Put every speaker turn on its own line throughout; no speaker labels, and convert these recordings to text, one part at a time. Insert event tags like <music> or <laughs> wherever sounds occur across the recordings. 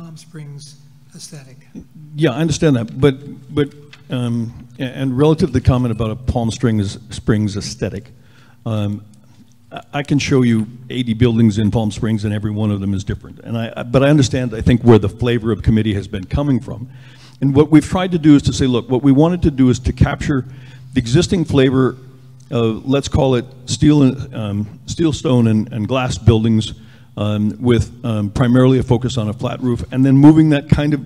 Palm Springs aesthetic.
Yeah, I understand that, but, but, um, a- and relative to the comment about a Palm Springs, Springs aesthetic, um, I- I can show you 80 buildings in Palm Springs, and every one of them is different. And I, I- but I understand, I think, where the flavor of committee has been coming from. And what we've tried to do is to say, look, what we wanted to do is to capture the existing flavor of, let's call it steel, and um, steel, stone, and, and glass buildings um, with um, primarily a focus on a flat roof, and then moving that kind of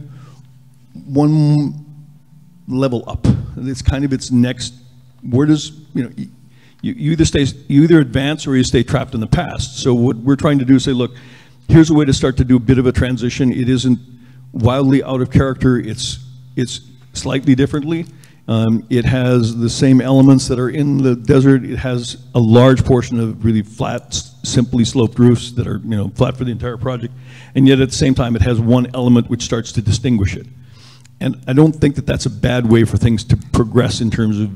one level up. It's kind of its next, where does, you know, you, you either stay, you either advance or you stay trapped in the past. So what we're trying to do is say, look, here's a way to start to do a bit of a transition. It isn't wildly out of character, it's, it's slightly differently. Um, it has the same elements that are in the desert. It has a large portion of really flat, s- simply sloped roofs that are, you know, flat for the entire project. And yet at the same time, it has one element which starts to distinguish it. And I don't think that that's a bad way for things to progress in terms of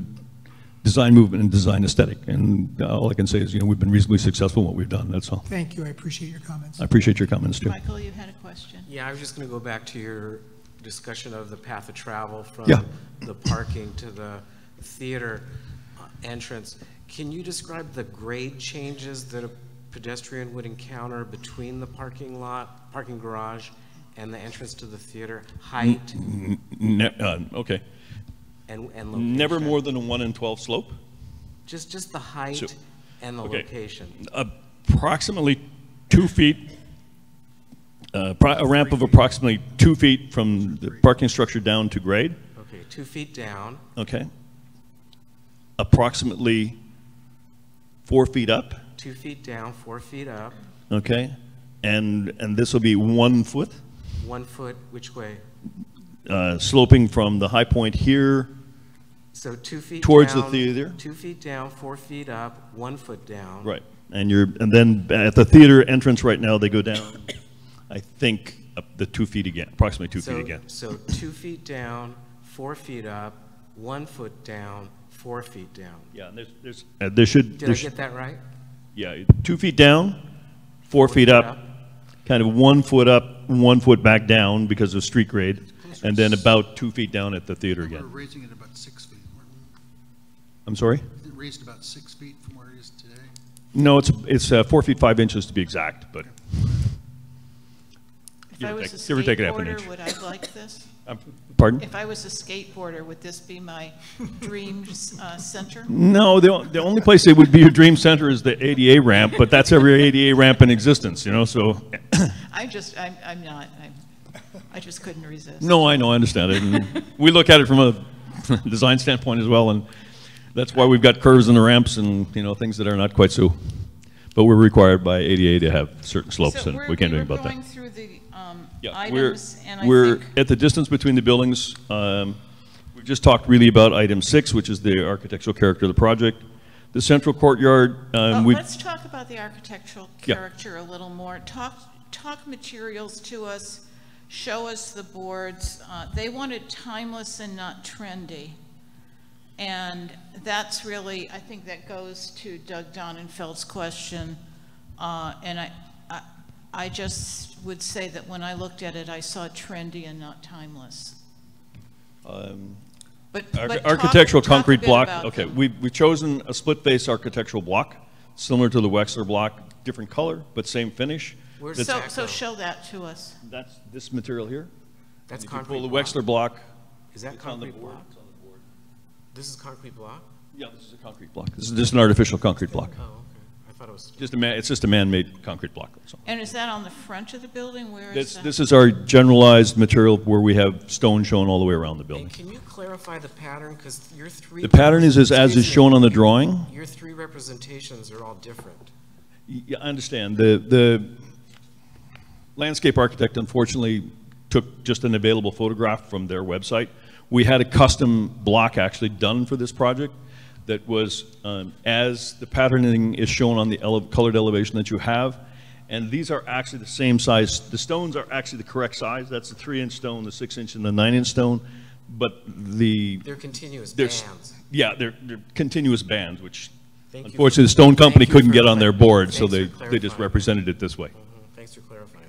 design movement and design aesthetic. And uh, all I can say is, you know, we've been reasonably successful in what we've done, that's all.
Thank you, I appreciate your comments.
I appreciate your comments, too.
Michael, you had a question.
Yeah, I was just going to go back to your discussion of the path of travel from
Yeah.
the parking to the theater uh, entrance. Can you describe the grade changes that a pedestrian would encounter between the parking lot, parking garage, and the entrance to the theater, height
Ne- uh, Okay.
and, and location?
Never more than a 1 in 12 slope?
Just, just the height
So-
and the
okay.
location.
Approximately two feet, uh, pro- a ramp of approximately two feet from the parking structure down to grade,
Okay, two feet down,
okay? Approximately four feet up?
two feet down, four feet up,
Okay, and, and this will be one foot,
one foot which way?
uh, sloping from the high point here,
So two feet
Towards the
down,
theater?
Two feet down, four feet up, one foot down.
right, and you're, and then at the theater entrance right now, they go down, I think, up the two feet again, approximately two
So-
feet again.
So two feet down, four feet up, one foot down, four feet down.
Yeah, and there's, there's, uh, there should,
Did I
there should,
get that right?
yeah, two feet down, four feet up, kind of one foot up, one foot back down because of street grade, and then about two feet down at the theater
We're
again.
raising it about six feet. We're-
I'm sorry?
It raised about six feet from where it is today.
No, it's, it's uh, four feet, five inches to be exact, but
If
Give
I
or
was a
take- give or take a half an
skateboarder,
inch.
would I like this?
um, Pardon?
If I was a skateboarder, would this
<laughs>
be my dream uh, center?
No, the, the only place that would be your dream center is the ADA ramp, but that's every ADA ramp in existence, you know, so,
I just, I'm, I'm not, I'm, I just couldn't resist.
no, I know, I understand it. And We look at it from a <laughs> design standpoint as well, and that's why we've got curves in the ramps and, you know, things that are not quite so, but we're required by ADA to have certain slopes,
So
and
we're-
we can't do
were
anything about that.
going through the um,
Yeah, we're,
items, and I
we're
think,
at the distance between the buildings. um, We've just talked really about item six, which is the architectural character of the project. The central courtyard,
well,
um, we've,
Oh, let's talk about the architectural
Yeah.
character a little more. Talk, talk materials to us, show us the boards. Uh, They wanted timeless and not trendy. And that's really, I think that goes to Doug Donenfeld's question. Uh, And I, I- I just would say that when I looked at it, I saw trendy and not timeless.
um,
But,
Ar-
but talk-
Architectural
talk a
concrete
bit
block,
about
okay,
them.
we, we've chosen a split-face architectural block, similar to the Wexler block, different color, but same finish.
Where's
That's-
So, so
Exacto.
show that to us.
That's this material here.
That's
If you
concrete
pull the
block.
Wexler block.
Is that
it's on the
concrete
board.
block? This is concrete block?
Yeah, this is a concrete block. This is just an artificial concrete block.
Oh, okay. I thought it was,
Just a man, it's just a man-made concrete block, that's all.
And is that on the front of the building? Where is
This,
that?
this is our generalized material where we have stone shown all the way around the
and
building.
can you clarify the pattern? Because your three.
The pattern is, is as is
Excuse me.
shown on the drawing.
Your three representations are all different.
Yeah, I understand. The, the landscape architect unfortunately took just an available photograph from their website. We had a custom block actually done for this project that was, um, as the patterning is shown on the ele- colored elevation that you have. And these are actually the same size. The stones are actually the correct size. That's the three-inch stone, the six-inch, and the nine-inch stone. But the
They're continuous
there's-
bands.
yeah, they're, they're continuous bands, which
Thank you.
unfortunately the stone company
Thank you
couldn't
for
get on their
clarifying.
board, so
Thanks
they,
for
they just
clarifying.
represented it this way.
Mhm. Thanks for clarifying.